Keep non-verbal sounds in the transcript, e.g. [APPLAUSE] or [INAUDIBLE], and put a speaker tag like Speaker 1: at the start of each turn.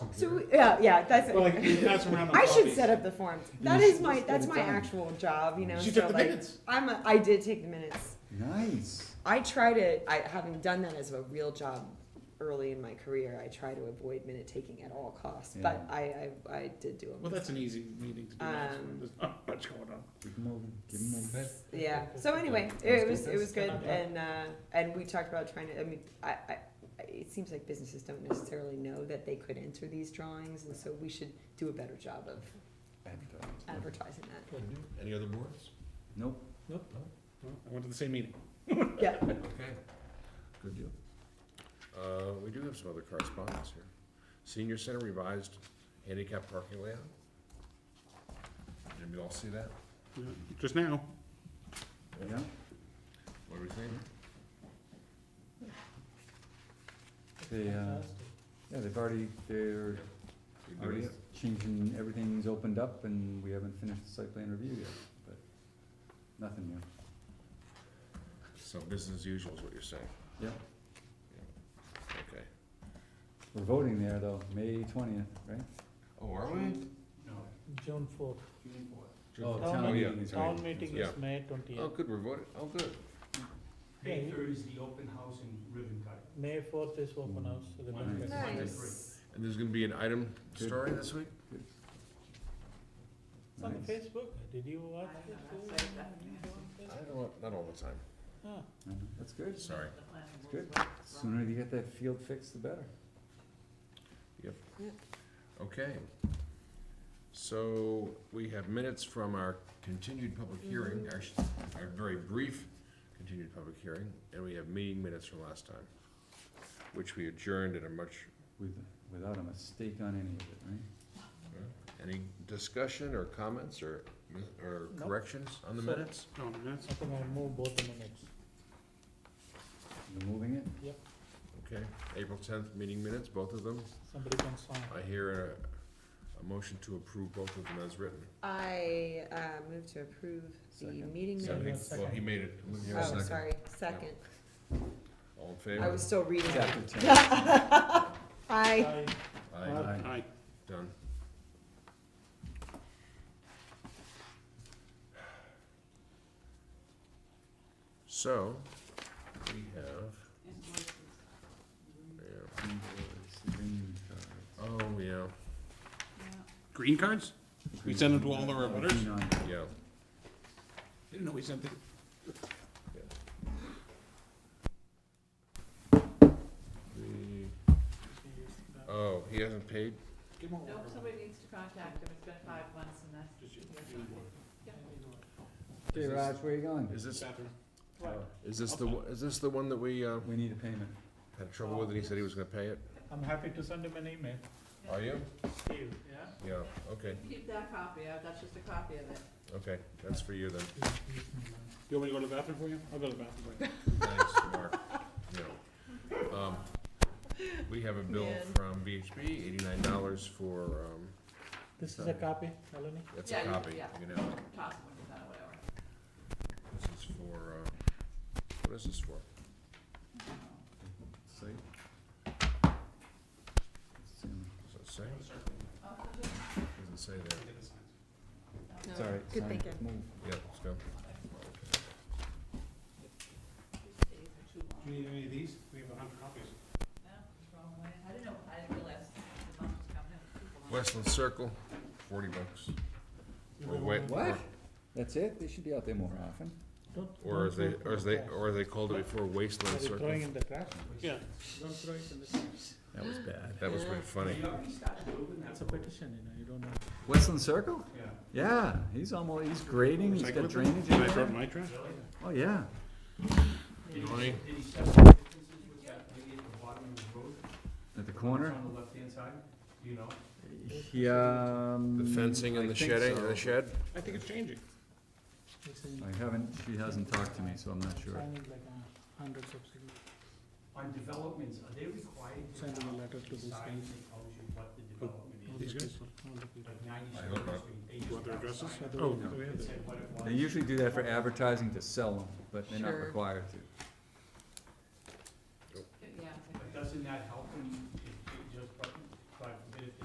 Speaker 1: So,
Speaker 2: here.
Speaker 1: we- yeah, yeah, that's
Speaker 2: But like,
Speaker 1: it.
Speaker 2: that's around the
Speaker 1: [LAUGHS] I should
Speaker 2: copies.
Speaker 1: set up the forms.
Speaker 3: You
Speaker 1: That is
Speaker 3: should
Speaker 1: my,
Speaker 3: just
Speaker 1: that's
Speaker 3: get
Speaker 1: my
Speaker 3: it done.
Speaker 1: actual job, you know,
Speaker 2: She
Speaker 1: so
Speaker 2: took the
Speaker 1: like,
Speaker 2: minutes.
Speaker 1: I'm, a- I did take the minutes.
Speaker 3: Nice.
Speaker 1: I try to, I, having done that as a real job early in my career, I try to avoid minute taking at all costs, but
Speaker 3: Yeah.
Speaker 1: I, I, I did do
Speaker 2: Well,
Speaker 1: them.
Speaker 2: that's an easy meeting to do. actually.
Speaker 1: Um,
Speaker 2: There's not much going on.
Speaker 3: Give him over. Give him over.
Speaker 1: Yeah, so anyway, it was, it was good, and, uh, and we talked about trying to, I mean, I, I, I- it seems like businesses don't necessarily know that they could enter these drawings, and so we should do a better job of
Speaker 3: Advertise.
Speaker 1: advertising that.
Speaker 4: Any other boards?
Speaker 3: Nope.
Speaker 2: Nope. I went to the same meeting.
Speaker 1: Yeah,
Speaker 4: Okay, good deal. Uh, we do have some other correspondence here. Senior Center revised handicap parking layout. Did we all see that?
Speaker 2: Yeah, Just now.
Speaker 3: Yeah.
Speaker 4: What do we think?
Speaker 3: They, uh, yeah, they've already, they're
Speaker 4: We good
Speaker 3: already
Speaker 4: with it?
Speaker 3: changing, everything's opened up and we haven't finished the site plan review yet, but nothing new.
Speaker 4: So business as usual is what you're saying,
Speaker 3: Yep.
Speaker 4: okay.
Speaker 3: We're voting there though, May twentieth, right?
Speaker 4: Oh, are we?
Speaker 5: June fourth.
Speaker 3: Oh,
Speaker 5: Town
Speaker 3: town
Speaker 4: meeting.
Speaker 3: meeting is right.
Speaker 5: Town meeting
Speaker 4: Yeah.
Speaker 5: is May twentieth.
Speaker 4: Oh, good, we're voting, oh, good.
Speaker 5: May
Speaker 6: third is the open house and ribbon cutting.
Speaker 5: May fourth is
Speaker 4: Mm.
Speaker 5: open house, ribbon
Speaker 3: Nice.
Speaker 5: cutting.
Speaker 1: nice.
Speaker 4: And there's gonna be an item
Speaker 3: Good.
Speaker 4: story this week?
Speaker 5: It's on
Speaker 3: Nice.
Speaker 5: Facebook, did you watch it?
Speaker 4: I don't know, not all the time,
Speaker 5: Ah,
Speaker 3: Uh, That's good, that's
Speaker 4: sorry.
Speaker 3: good. Sooner you get that field fixed, the better.
Speaker 4: Okay. So we have minutes from our continued public
Speaker 1: Mm-hmm.
Speaker 4: hearing, actually, our very brief continued public hearing, and we have meeting minutes from last time, which we adjourned at a much,
Speaker 3: With, without a mistake on any of it, right?
Speaker 4: any discussion or comments or, or
Speaker 5: Nope.
Speaker 4: corrections on the
Speaker 5: So-
Speaker 4: minutes?
Speaker 2: Oh, that's,
Speaker 5: I think I'll move both the minutes.
Speaker 3: They're moving it?
Speaker 4: Okay, April tenth meeting minutes, both of them.
Speaker 5: Somebody can sign.
Speaker 4: I hear a, a motion to approve both of them as written.
Speaker 1: I, uh, move to approve the
Speaker 3: Second.
Speaker 1: meeting
Speaker 4: So I
Speaker 1: minutes.
Speaker 4: think- Well, he
Speaker 5: Second.
Speaker 4: made it. Let me hear a
Speaker 1: Oh,
Speaker 4: second.
Speaker 1: sorry, second.
Speaker 4: All in
Speaker 1: I
Speaker 4: favor?
Speaker 1: was still reading.
Speaker 3: Chapter ten.
Speaker 1: Aye.
Speaker 5: Aye.
Speaker 4: Aye,
Speaker 3: Aye.
Speaker 2: I,
Speaker 4: done. So, we have, yeah,
Speaker 1: [LAUGHS]
Speaker 3: Invoice, green cards.
Speaker 4: oh, yeah,
Speaker 2: green cards? We send them to all the
Speaker 3: Green on-
Speaker 2: rebutters?
Speaker 4: yeah.
Speaker 2: Didn't know we sent them.
Speaker 4: We- Oh, he hasn't paid?
Speaker 2: Give them all.
Speaker 6: Nope, somebody needs to contact them, it's been five months and that's.
Speaker 3: Hey Raj, where you going?
Speaker 4: Is this,
Speaker 3: Oh,
Speaker 4: Uh, is this the, one- is this the one that we, uh,
Speaker 3: We need a payment.
Speaker 4: had trouble with and he said he was gonna pay it?
Speaker 5: I'm happy to send him an email.
Speaker 4: Are you?
Speaker 5: Steve, yeah?
Speaker 4: Yeah, okay,
Speaker 6: Keep that copy, uh, that's just a copy of it.
Speaker 4: okay, that's for you then.
Speaker 2: Do you want me to go to the bathroom for you? I'll go to the bathroom for you.
Speaker 4: Thanks, Mark. No. Um, We have a bill
Speaker 1: Man.
Speaker 4: from VHB, eighty-nine dollars for, um,
Speaker 5: [LAUGHS] This is a copy, Melanie?
Speaker 4: that's a
Speaker 6: Yeah, you-
Speaker 4: copy,
Speaker 6: yeah.
Speaker 4: you know,
Speaker 6: Toss them, uh, whatever.
Speaker 4: this is for, uh, what is this for?
Speaker 3: Site.
Speaker 4: Does it say? Doesn't say there.
Speaker 1: No,
Speaker 3: Sorry,
Speaker 1: Good
Speaker 3: sorry.
Speaker 1: thinking.
Speaker 3: Move.
Speaker 4: Yeah, let's go.
Speaker 6: These are too long.
Speaker 2: Do you need any of these? We have a hundred copies.
Speaker 6: No, it's wrong way. I didn't know, I didn't realize the month was coming up. People on-
Speaker 4: Westland Circle, forty bucks. Or wait,
Speaker 3: What? That's it? They should be out there more often.
Speaker 5: Don't-
Speaker 4: Or
Speaker 5: don't
Speaker 4: as they,
Speaker 5: throw
Speaker 4: or as
Speaker 5: in the
Speaker 4: they,
Speaker 5: trash.
Speaker 4: or as they called it before,
Speaker 5: Are
Speaker 4: Wasteland
Speaker 5: you throwing
Speaker 4: Circle.
Speaker 5: in the trash?
Speaker 2: Yeah.
Speaker 5: Don't throw it in the trash.
Speaker 3: That was bad.
Speaker 4: That was pretty funny.
Speaker 5: It's a petition, you know, you don't know.
Speaker 3: Westland Circle? Yeah, he's almost, he's grading, he's got
Speaker 2: Recyclable?
Speaker 3: drainage
Speaker 2: Did
Speaker 3: in
Speaker 2: I throw it in
Speaker 3: there.
Speaker 2: my trash?
Speaker 3: Oh, yeah.
Speaker 4: You know what I mean?
Speaker 6: Did he separate the differences with that lady at the bottom of the road?
Speaker 3: At the corner?
Speaker 6: the left-hand side, do you know?
Speaker 3: Yeah.
Speaker 4: The fencing and the shedding, the shed?
Speaker 2: I think it's changing.
Speaker 5: It's in-
Speaker 3: I haven't, she hasn't talked to me, so I'm not sure.
Speaker 5: Sign it like a hundred subsidy.
Speaker 6: On developments, are they required
Speaker 5: to Send them a letter to these guys. decide
Speaker 6: tells you what the development
Speaker 5: All the
Speaker 2: These guys?
Speaker 5: people, all the people.
Speaker 4: I hope not.
Speaker 2: You want their addresses?
Speaker 5: Oh,
Speaker 2: Do we have that?
Speaker 3: They usually do that for advertising to sell them, but they're not
Speaker 1: Sure.
Speaker 3: required to.
Speaker 6: Doesn't that help when you